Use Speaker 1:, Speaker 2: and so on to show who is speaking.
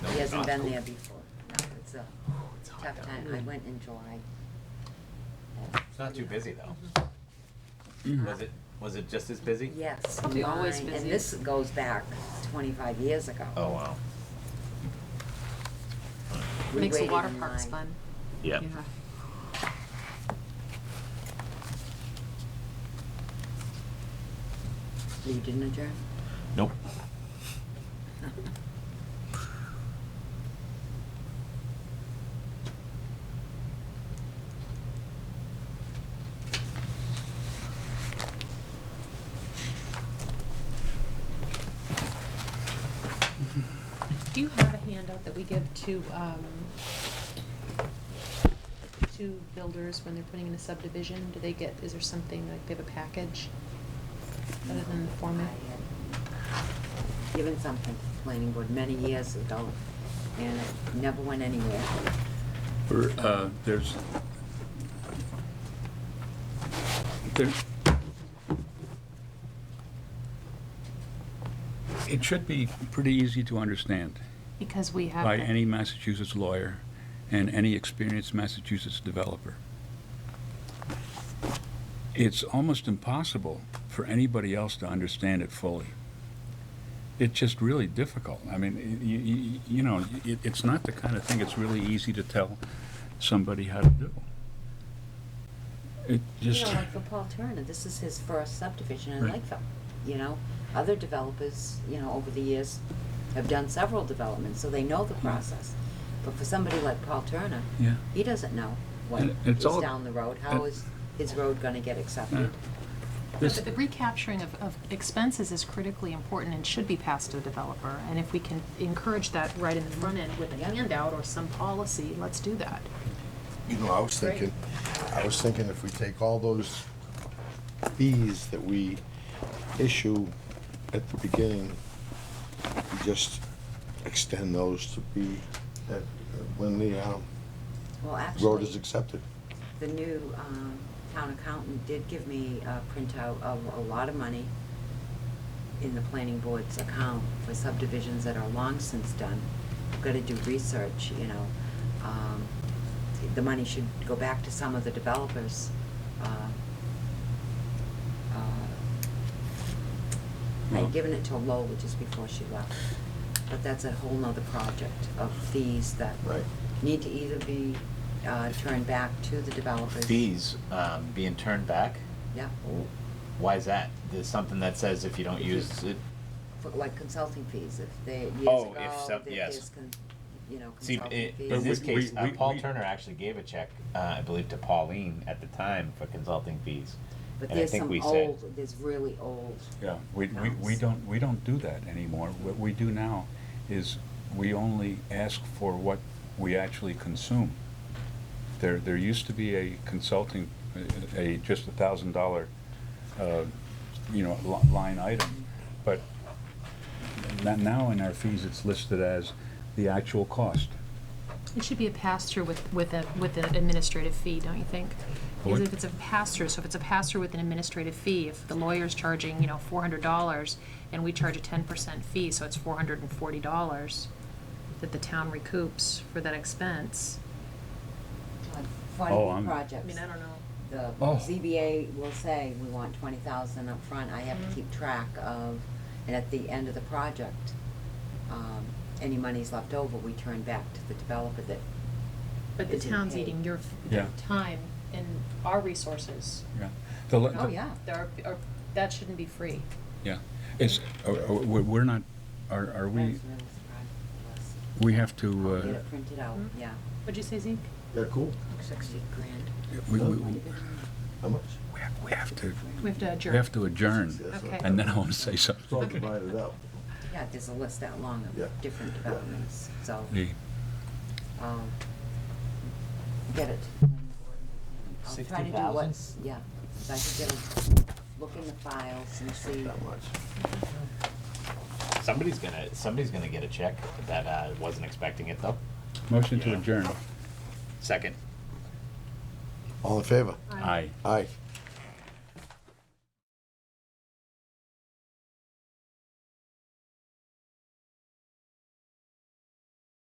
Speaker 1: hasn't been there before. No, it's a tough time. I went in July.
Speaker 2: It's not too busy though. Was it, was it just as busy?
Speaker 1: Yes.
Speaker 3: Probably always
Speaker 1: mine-
Speaker 3: busy.
Speaker 1: And this goes back twenty-five years ago.
Speaker 2: Oh, wow.
Speaker 1: We
Speaker 3: Makes the
Speaker 1: waited
Speaker 3: water
Speaker 1: in
Speaker 3: parks
Speaker 1: line.
Speaker 3: fun.
Speaker 2: Yep.
Speaker 3: Yeah.
Speaker 1: You didn't adjourn?
Speaker 2: Nope.
Speaker 4: Do you have a handout that we give to, um, to builders when they're putting in a subdivision? Do they get, is there something, like, they have a package? Other than the format?
Speaker 1: I had Given something to the planning board many years ago, and it never went anywhere.
Speaker 5: Or, uh, there's, there, it should be pretty easy to understand
Speaker 4: Because we have.
Speaker 5: by
Speaker 4: the-
Speaker 5: any Massachusetts lawyer and any experienced Massachusetts developer. It's almost impossible for anybody else to understand it fully. It's just really difficult. I mean, you, you, you know, it, it's not the kind of thing it's really easy to tell somebody how to do. It
Speaker 1: You
Speaker 5: just,
Speaker 1: know, like for Paul Turner, this is his first subdivision in
Speaker 5: Right.
Speaker 1: Lakeville, you know? Other developers, you know, over the years have done several developments, so they know the process. But for somebody like Paul Turner,
Speaker 5: Hmm. yeah.
Speaker 1: he doesn't know what
Speaker 5: And it's
Speaker 1: is
Speaker 5: all-
Speaker 1: down the road. How
Speaker 5: and-
Speaker 1: is his road gonna get accepted?
Speaker 5: This-
Speaker 4: But the recapturing of, of expenses is critically important and should be passed to the developer. And if we can encourage that right in the front end with a
Speaker 1: Yeah.
Speaker 4: handout or some policy, let's do that.
Speaker 6: You know, I was thinking, I was thinking if we take all those fees that we issue at the beginning, we just extend those to be, that, when the, um,
Speaker 1: Well,
Speaker 6: road is
Speaker 1: actually,
Speaker 6: accepted.
Speaker 1: the new, um, town accountant did give me a printout of a lot of money in the planning board's account for subdivisions that are long since done. I've Gotta do research, you know, um, the money should go back to some of the developers, uh, uh,
Speaker 5: Well-
Speaker 1: I'd given it to Lola just before she left, but that's a whole nother project of fees that
Speaker 6: Right.
Speaker 1: need to either be uh, turned back to the developers.
Speaker 2: Fees, um, being turned back,
Speaker 1: Yeah,
Speaker 2: why is that? There's something that says if you don't use it,
Speaker 1: for like consulting fees, if they, years
Speaker 2: Oh,
Speaker 1: ago,
Speaker 2: if some-
Speaker 1: there-
Speaker 2: yes.
Speaker 1: there's, con- you know,
Speaker 2: see, i-
Speaker 1: consulting fees.
Speaker 2: in this
Speaker 5: we-
Speaker 2: case,
Speaker 5: we-
Speaker 2: uh,
Speaker 5: we-
Speaker 2: Paul
Speaker 5: we-
Speaker 2: Turner actually gave a check, uh, I believe to Pauline at the time for consulting fees.
Speaker 1: But
Speaker 2: and I
Speaker 1: there's
Speaker 2: think
Speaker 1: some
Speaker 2: we said-
Speaker 1: old, there's really old,
Speaker 5: Yeah, we, we, we
Speaker 1: Nice.
Speaker 5: don't, we don't do that anymore. What we do now is we only ask for what we actually consume. There, there used to be a consulting, a, a- just a thousand dollar, uh, you know, li- line item. But n- now in our fees, it's listed as the actual cost.
Speaker 4: It should be a pass-through with, with a, with an administrative fee, don't you think? Because
Speaker 5: What?
Speaker 4: if it's a pass-through, so if it's a pass-through with an administrative fee, if the lawyer's charging, you know, four hundred dollars, and we charge a ten percent fee, so it's four hundred and forty dollars that the town recoups for that expense.
Speaker 1: like,
Speaker 5: Oh,
Speaker 1: forty
Speaker 5: I'm-
Speaker 4: I
Speaker 1: projects.
Speaker 4: mean, I don't know.
Speaker 1: The
Speaker 5: Oh.
Speaker 1: ZBA will say, we want twenty thousand up front. I have to
Speaker 4: Mhm.
Speaker 1: keep track of, and at the end of the project, um, any monies left over, we turn back to the developer that
Speaker 4: But the
Speaker 1: Isn't
Speaker 4: town's
Speaker 1: paid.
Speaker 4: eating your, f-
Speaker 5: Yeah.
Speaker 4: time and our resources.
Speaker 5: Yeah. The le-
Speaker 1: Oh,
Speaker 5: the-
Speaker 1: yeah.
Speaker 4: There are- are- that shouldn't be free.
Speaker 5: Yeah. It's, uh, uh, we're we're not, are, are
Speaker 1: I
Speaker 5: we,
Speaker 1: was really surprised.
Speaker 5: we have to,
Speaker 1: Get
Speaker 5: uh,
Speaker 1: it printed out,
Speaker 4: Mhm.
Speaker 1: yeah.
Speaker 4: What'd you say, Zeke?
Speaker 6: Yeah, cool.
Speaker 1: Sixty grand.
Speaker 5: we, we,
Speaker 1: Might
Speaker 5: we
Speaker 1: have been.
Speaker 6: How much?
Speaker 5: have- we have to,
Speaker 4: We have to
Speaker 5: we
Speaker 4: adjourn.
Speaker 5: have to adjourn.
Speaker 6: That's
Speaker 4: Okay.
Speaker 6: what-
Speaker 5: And then I want to say
Speaker 6: It's all
Speaker 5: something.
Speaker 6: divided up.
Speaker 1: Yeah, there's a list that long
Speaker 6: Yeah.
Speaker 1: of different developments, so,
Speaker 5: The-
Speaker 1: um, get it. to the planning board. I'll try
Speaker 2: 60,000?
Speaker 1: to do what's, yeah, if I could get a look in the files and see.
Speaker 6: That much.
Speaker 2: Somebody's gonna, somebody's gonna get a check that, uh, wasn't expecting it though.
Speaker 5: Motion to
Speaker 2: Yeah.
Speaker 5: adjourn.
Speaker 2: Second.
Speaker 6: All in favor?
Speaker 4: Aye.
Speaker 5: Aye.
Speaker 6: Aye.